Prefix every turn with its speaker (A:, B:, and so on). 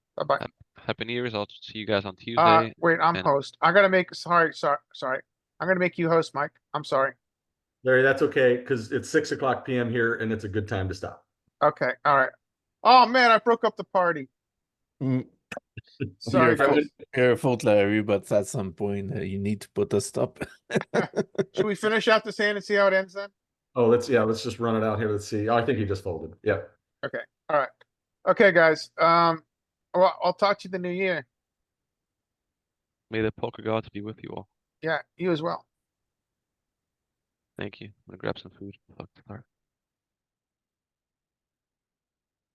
A: bye.
B: Happy New Year's. I'll see you guys on
A: Uh,
B: Tuesday.
A: wait, I'm
B: and-
A: host. I gotta make, sorry, sorry, sorry. I'm gonna make you host, Mike. I'm sorry.
C: Larry, that's okay, because it's six o'clock PM here and it's a good time to stop.
A: Okay, alright. Oh, man, I broke up the party.
D: Mm,
A: Sorry,
C: Beautiful.
A: guys.
D: your fault, Larry, but at some point uh, you need to put a stop.
A: Should we finish out this hand and see how it ends then?
C: Oh, let's, yeah, let's just run it out here. Let's see. Oh, I think he just folded. Yep.
A: Alright. Okay, guys, um, well, I'll talk to you the new year.
B: May the poker gods be with you all.
A: Yeah, you as well.
B: Thank you. I'm gonna grab some food. Fuck, all right.